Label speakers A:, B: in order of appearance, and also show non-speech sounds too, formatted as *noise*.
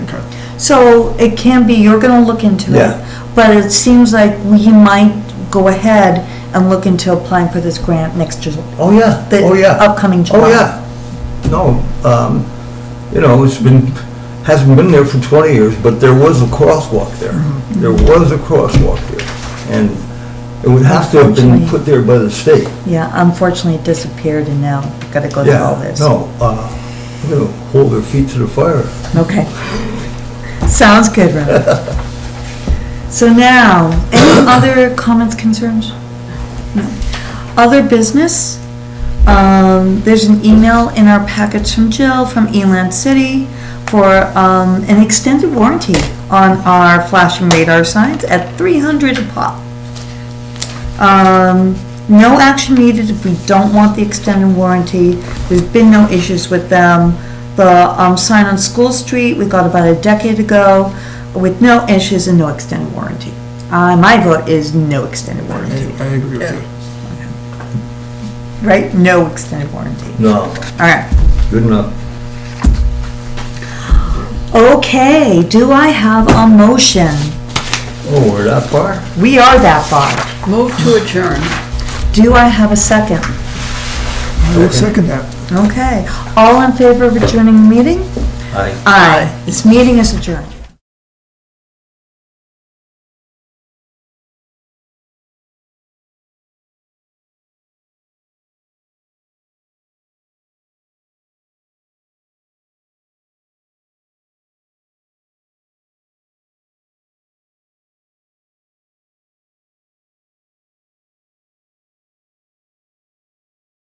A: So it can be, you're gonna look into
B: Yeah.
A: it, but it seems like we might go ahead and look into applying for this grant next July.
B: Oh, yeah,
A: The
B: oh, yeah.
A: upcoming July.
B: Oh, yeah. No, um, you know, it's been, hasn't been there for 20 years, but there was a crosswalk there.
A: Mm-hmm.
B: There was a crosswalk there. And it would have to have been
A: Unfortunately.
B: put there by the state.
A: Yeah, unfortunately it disappeared and now gotta go through all
B: Yeah,
A: this.
B: no, uh, you know, hold their feet to the fire.
A: Okay. Sounds good, Ron.
B: *laughs*
A: So now, any other comments, concerns? No. Other business? Um, there's an email in our package from Jill from Eland City for, um, an extended warranty on our flashing radar signs at three hundred a pop. Um, no action needed if we don't want the extended warranty. There's been no issues with them. The, um, sign on School Street, we got about a decade ago with no issues and no extended warranty. Uh, my vote is no extended warranty,
C: I agree with you.
A: right? No extended warranty.
B: No,
A: All right.
B: good enough.
A: Okay, do I have a motion?
B: Oh, we're that far?
A: We are that far.
D: Move to adjourn.
A: Do I have a second?
C: I will second that.
A: Okay. All in favor of adjourning the meeting?
B: Aye.
A: Aye. This meeting is adjourned.